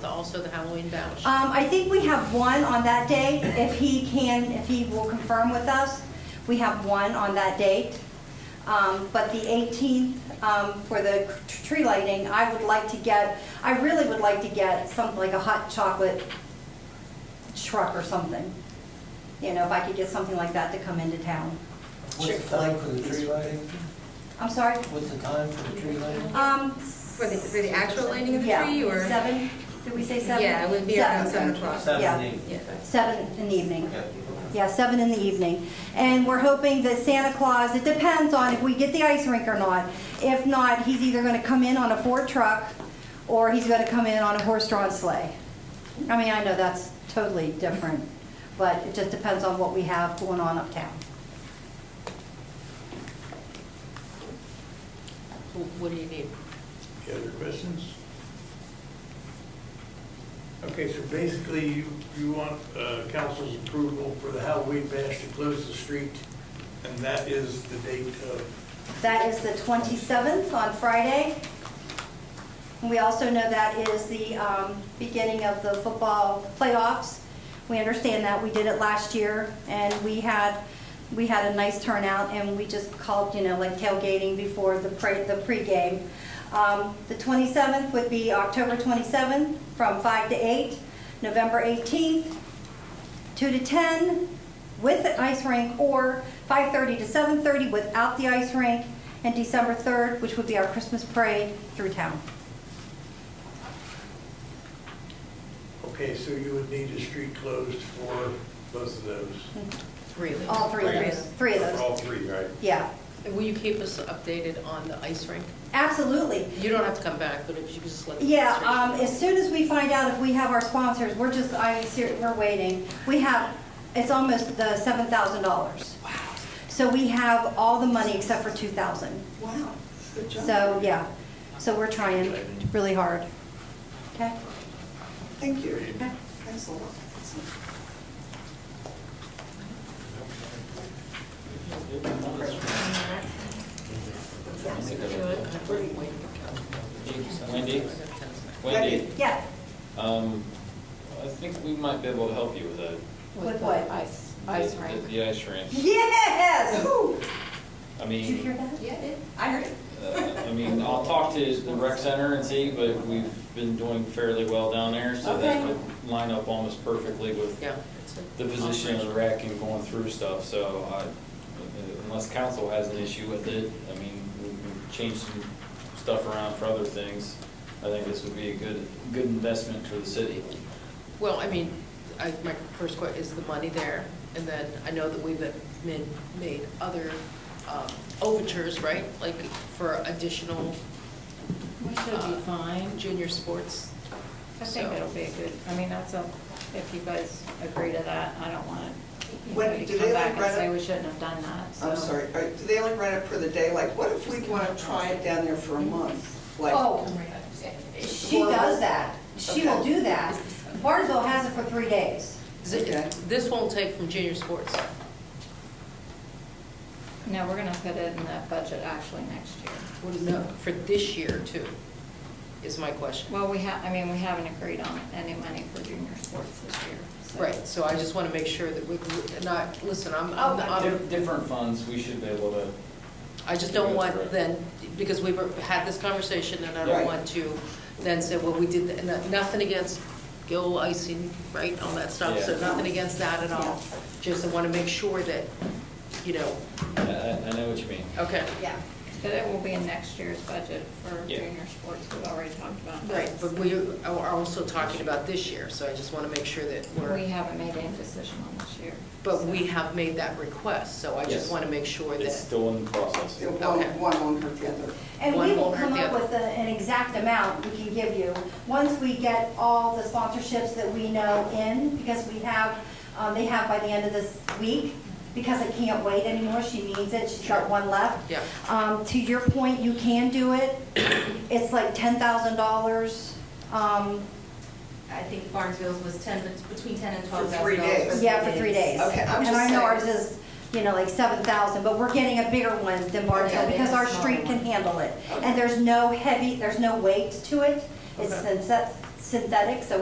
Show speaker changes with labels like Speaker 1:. Speaker 1: the, also the Halloween bash?
Speaker 2: Um, I think we have one on that date, if he can, if he will confirm with us. We have one on that date. Um, but the 18th, um, for the tr- tree lighting, I would like to get, I really would like to get something like a hot chocolate truck or something. You know, if I could get something like that to come into town.
Speaker 3: What's the time for the tree lighting?
Speaker 2: I'm sorry?
Speaker 3: What's the time for the tree lighting?
Speaker 2: Um,
Speaker 4: For the, for the actual lighting of the
Speaker 2: yeah,
Speaker 4: tree or?
Speaker 2: Seven, did we say seven?
Speaker 4: Yeah, it would be around
Speaker 2: Seven.
Speaker 4: seven o'clock.
Speaker 2: Yeah.
Speaker 3: Seven, eight.
Speaker 4: Yeah.
Speaker 2: Seven in the evening.
Speaker 3: Okay.
Speaker 2: Yeah, seven in the evening. And we're hoping that Santa Claus, it depends on if we get the ice rink or not. If not, he's either gonna come in on a Ford truck, or he's gonna come in on a horse-drawn sleigh. I mean, I know that's totally different, but it just depends on what we have going on uptown.
Speaker 1: Wh- What do you need?
Speaker 5: Any other questions? Okay, so basically, you, you want uh, council's approval for the Halloween bash to close the street, and that is the date of,
Speaker 2: That is the 27th on Friday. And we also know that is the um, beginning of the football playoffs. We understand that, we did it last year, and we had, we had a nice turnout, and we just called, you know, like tailgating before the pre, the pregame. Um, The 27th would be October 27th, from 5 to 8, November 18th, 2 to 10 with the ice rink, or 5:30 to 7:30 without the ice rink, and December 3rd, which would be our Christmas parade through town.
Speaker 5: okay, so you would need a street closed for both of those.
Speaker 1: Three of
Speaker 2: All three of those, three of
Speaker 5: For
Speaker 2: those,
Speaker 5: all three, right?
Speaker 2: yeah,
Speaker 1: Will you keep us updated on the ice rink?
Speaker 2: absolutely.
Speaker 1: You don't have to come back, but if you could just let. the
Speaker 2: Yeah,
Speaker 1: administration
Speaker 2: um,
Speaker 1: know.
Speaker 2: as soon as we find out if we have our sponsors, we're just, I, ser- we're waiting. We have, it's almost the $7,000. Wow. So we have all the money except for 2,000.
Speaker 6: Wow, good job.
Speaker 2: So, yeah, so we're trying really hard. Okay?
Speaker 6: Thank you.
Speaker 2: Okay.
Speaker 6: Thanks a lot. Excellent.
Speaker 7: Wendy,
Speaker 6: Wendy.
Speaker 7: Wendy,
Speaker 2: Yeah,
Speaker 7: um, I think we might be able to help you with that.
Speaker 2: with what?
Speaker 8: Ice,
Speaker 7: The-
Speaker 8: ice
Speaker 7: the-
Speaker 8: rink.
Speaker 7: The ice rink.
Speaker 2: Yes! Woo!
Speaker 7: I
Speaker 2: Did you hear
Speaker 7: mean,
Speaker 2: that?
Speaker 8: Yeah, it- I heard it.
Speaker 7: uh, I mean, I'll talk to the rec center and see, but we've been doing fairly well down there, so that
Speaker 8: Okay.
Speaker 7: would line up almost perfectly with
Speaker 1: Yeah. it's a-
Speaker 7: the position of the rec and going through stuff, so I, unless council has an issue with it, I mean, we can change some stuff around for other things. I think this would be a good, good investment for the city.
Speaker 1: Well, I mean, I, my first question, is the money there? And then I know that we've made, made other, um, overtures, right? Like for additional
Speaker 8: We should be fine.
Speaker 1: junior sports.
Speaker 8: I think it'll be a good, I mean, that's a, if you guys agree to that, I don't want
Speaker 6: When-
Speaker 8: anybody to
Speaker 6: do they
Speaker 8: come back
Speaker 6: like
Speaker 8: and
Speaker 6: run
Speaker 8: say
Speaker 6: it?
Speaker 8: we shouldn't have done that, so.
Speaker 6: I'm sorry, All right, do they like rent it for the day? Like, what if we want to try it down there for a month? Like,
Speaker 2: Oh, she does that. She will
Speaker 6: Okay.
Speaker 2: do that. Barnesville has it for three days.
Speaker 1: Is it-
Speaker 6: Okay.
Speaker 1: This won't take from junior sports.
Speaker 8: No, we're gonna put it in the budget actually next year.
Speaker 1: No, for this year too, is my question.
Speaker 8: Well, we have, I mean, we haven't agreed on any money for junior sports this year, so.
Speaker 1: Right, so I just want to make sure that we, we- not, listen, I'm,
Speaker 8: Oh,
Speaker 1: I'm,
Speaker 7: Dif-
Speaker 1: I'm-
Speaker 7: Different funds, we should be able to,
Speaker 1: I just don't want
Speaker 7: Right.
Speaker 1: then, because we've had this conversation and I don't
Speaker 6: Right.
Speaker 1: want to then say, well, we did, that," and nothing against Gil icing, right, all that stuff, so
Speaker 7: Yeah.
Speaker 1: nothing against that at all. Just I want to make sure that, you know,
Speaker 7: I, I I know what you mean.
Speaker 1: okay,
Speaker 2: Yeah.
Speaker 8: But it will be in next year's budget for
Speaker 7: Yeah.
Speaker 8: junior sports, we've already talked about that.
Speaker 1: right, but we are also talking about this year, so I just want to make sure that we're.
Speaker 8: We haven't made any decision on this year.
Speaker 1: But
Speaker 8: so.
Speaker 1: we have made that request, so I just
Speaker 7: Yes.
Speaker 1: want to make sure
Speaker 7: It's
Speaker 1: that,
Speaker 7: still in the process.
Speaker 6: it- one,
Speaker 1: Okay.
Speaker 6: one won't hurt the other.
Speaker 2: And we
Speaker 1: One
Speaker 2: will
Speaker 1: won't hurt
Speaker 2: come
Speaker 1: the
Speaker 2: up
Speaker 1: other.
Speaker 2: with a- an exact amount we can give you, once we get all the sponsorships that we know in, because we have, um, they have by the end of this week, because I can't wait anymore, she needs it, she's got one left.
Speaker 1: yeah.
Speaker 2: Um, to your point, you can do it. It's like ten thousand dollars. Um,
Speaker 9: I think Barnesville's was ten, between ten and
Speaker 6: For
Speaker 9: twelve thousand
Speaker 6: three days.
Speaker 9: dollars.
Speaker 2: yeah, for three days.
Speaker 6: Okay, I'm
Speaker 2: And
Speaker 6: just
Speaker 2: I know ours
Speaker 6: saying.
Speaker 2: is, you know, like seven thousand, but we're getting a bigger one than Barnesville
Speaker 9: Okay.
Speaker 2: because our
Speaker 9: It's a
Speaker 2: street
Speaker 9: smaller
Speaker 2: can handle it.
Speaker 6: Okay.
Speaker 2: And there's no heavy, there's no weight to it. It's
Speaker 1: Okay.
Speaker 2: synth- synthetic, so